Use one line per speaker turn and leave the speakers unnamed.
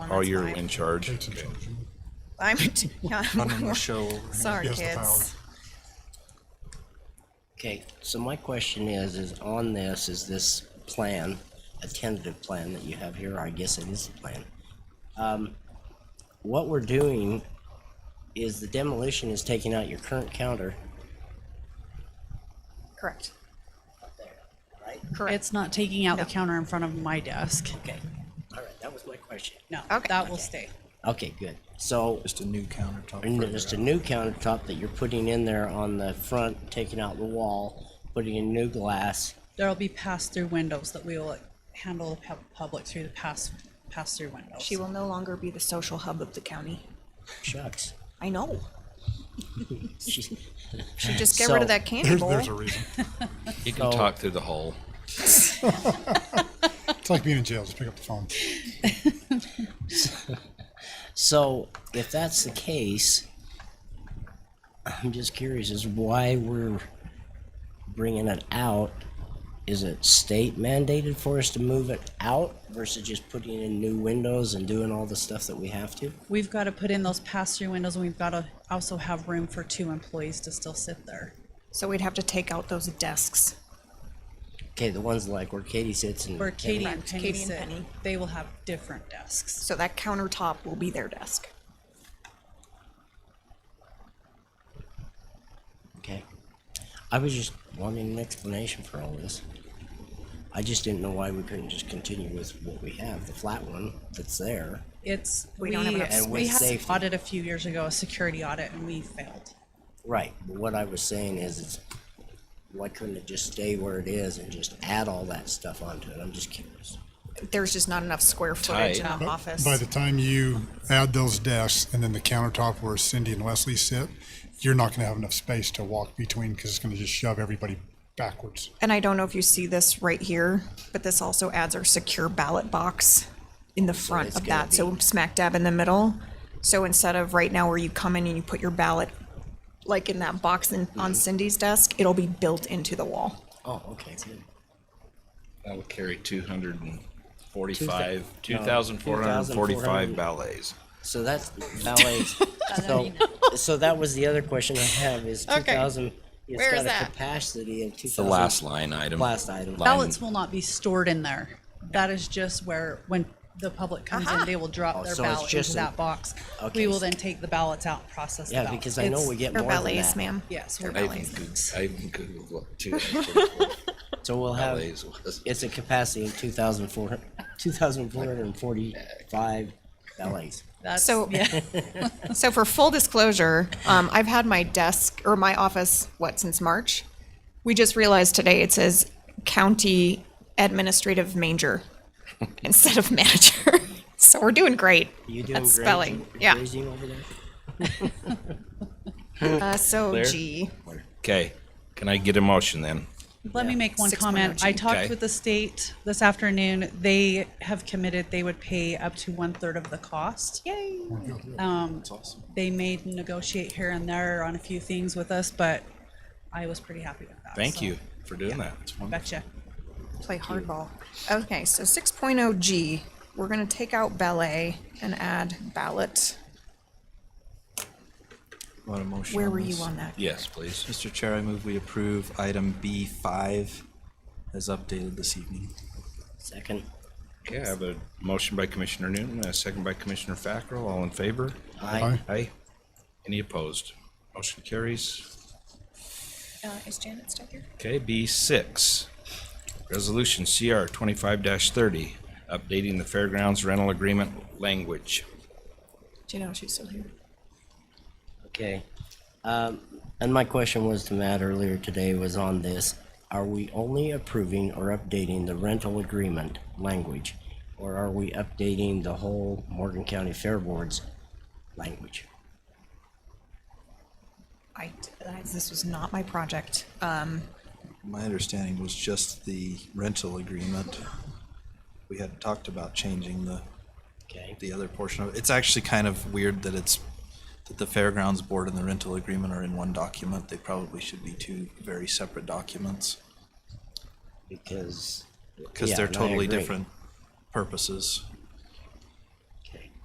Oh,
that's
you're
fine.
in charge.
Kate's in
Okay.
charge. You-
I'm, yeah, I'm-
running the show. over here.
sorry,
Yes, the power.
kids.
Okay, so my question is, is on this, is this plan, a tentative plan that you have here, I guess it is a plan. Um, what we're doing is the demolition is taking out your current counter,
Correct.
right?
Correct.
It's not taking out the
No.
counter in front of my desk.
Okay, all right, that was my question.
No,
Okay.
that will stay.
Okay, good. So,
Just a new countertop.
and
further
just
up.
a new countertop that you're putting in there on the front, taking out the wall, putting in new glass.
There'll be pass-through windows that we will handle the pub- public through the pass, pass-through windows.
She will no longer be the social hub of the county.
Shucks.
I know.
She's-
Should just get rid
So-
of that candy
There's,
bowl.
there's a reason.
You can
So-
talk through the hole.
It's like being in jail, just pick up the phone.
So if that's the case, I'm just curious as why we're bringing it out. Is it state mandated for us to move it out versus just putting in new windows and doing all the stuff that we have to?
We've got to put in those pass-through windows and we've got to also have room for two employees to still sit there.
So we'd have to take out those desks.
Okay, the ones like where Katie sits and.
Where Katie and Penny
Katie and
sit,
Penny.
they will have different desks.
So that countertop will be their desk.
Okay. I was just wanting an explanation for all this. I just didn't know why we couldn't just continue with what we have, the flat one that's there.
It's,
We
we,
don't have enough
And with
we had an
safety.
audit a few years ago, a security audit, and we failed.
Right, but what I was saying is, it's, why couldn't it just stay where it is and just add all that stuff onto it? I'm just curious.
There's just not enough square footage in
Tight.
the office.
By the time you add those desks and then the countertop where Cindy and Leslie sit, you're not going to have enough space to walk between because it's going to just shove everybody backwards.
And I don't know if you see this right here, but this also adds our secure ballot box in the front
it's
of
gonna
that, so
be-
smack dab in the middle. So instead of right now where you come in and you put your ballot, like in that box in,
Mm-hmm.
on Cindy's desk, it'll be built into the wall.
Oh, okay, good.
That'll carry 245,
Two thou- no,
2,445
2,400.
ballets.
So that's ballet. so, so that was the other question I have is two
Okay.
thousand, it's
Where is
got a
that?
capacity of two
The
thousand.
last line item.
Last item.
Ballots will not be stored in there. That is just where, when the public comes in, they will drop their
Oh, so it's
ballot
just
into
an-
that box.
Okay.
We will then take the ballots out and process the
Yeah,
ballots.
because I know
It's-
we get
Or
more than
ballets,
that.
ma'am.
Yes,
Or
we're
I even
ballets.
Goog- I even Googled what 2,445
So we'll have,
ballets was.
it's a capacity of two thousand four, two thousand four hundred and forty-five ballets.
That's-
So-
yeah.
So for full disclosure, um, I've had my desk or my office, what, since March? We just realized today it says county administrative manger instead of manager. So we're doing great.
You doing
at
grazing?
spelling, yeah.
Grazing over there?
Uh, so
Claire?
G.
Okay, can I get a motion then?
Let me make one
Six
comment.
point oh
I
G.
talked
Okay.
with the state this afternoon. They have committed they would pay up to one third of the cost.
Yay.
They may negotiate here and there on a few things with us, but I was pretty happy with that.
Thank
so,
you for doing that.
Betcha.
Play hardball. Okay, so 6.0 G. We're going to take out ballet and add ballot.
Want a motion
Where
on
were you
this?
on that?
Yes, please.
Mr. Chair, I move we approve item B five as updated this evening.
Second.
Okay, I have a motion by Commissioner Newton, a second by Commissioner Fackrell. All in favor?
Aye.
Aye. Any opposed? Motion carries.
Uh, is Janet still here?
Okay, B six, resolution CR twenty-five thirty, updating the fairgrounds rental agreement language.
Do you know if she's still here?
Okay. Um, and my question was to Matt earlier today was on this. Are we only approving or updating the rental agreement language? Or are we updating the whole Morgan County Fair Board's language?
I, I- this was not my project. Um,
My understanding was just the rental agreement. We had talked about changing the,
Okay,
the other portion of it. It's actually kind of weird that it's, that the fairgrounds board and the rental agreement are in one document. They probably should be two very separate documents.
because.
Because
Yeah,
they're
and I
totally
agree.
different purposes.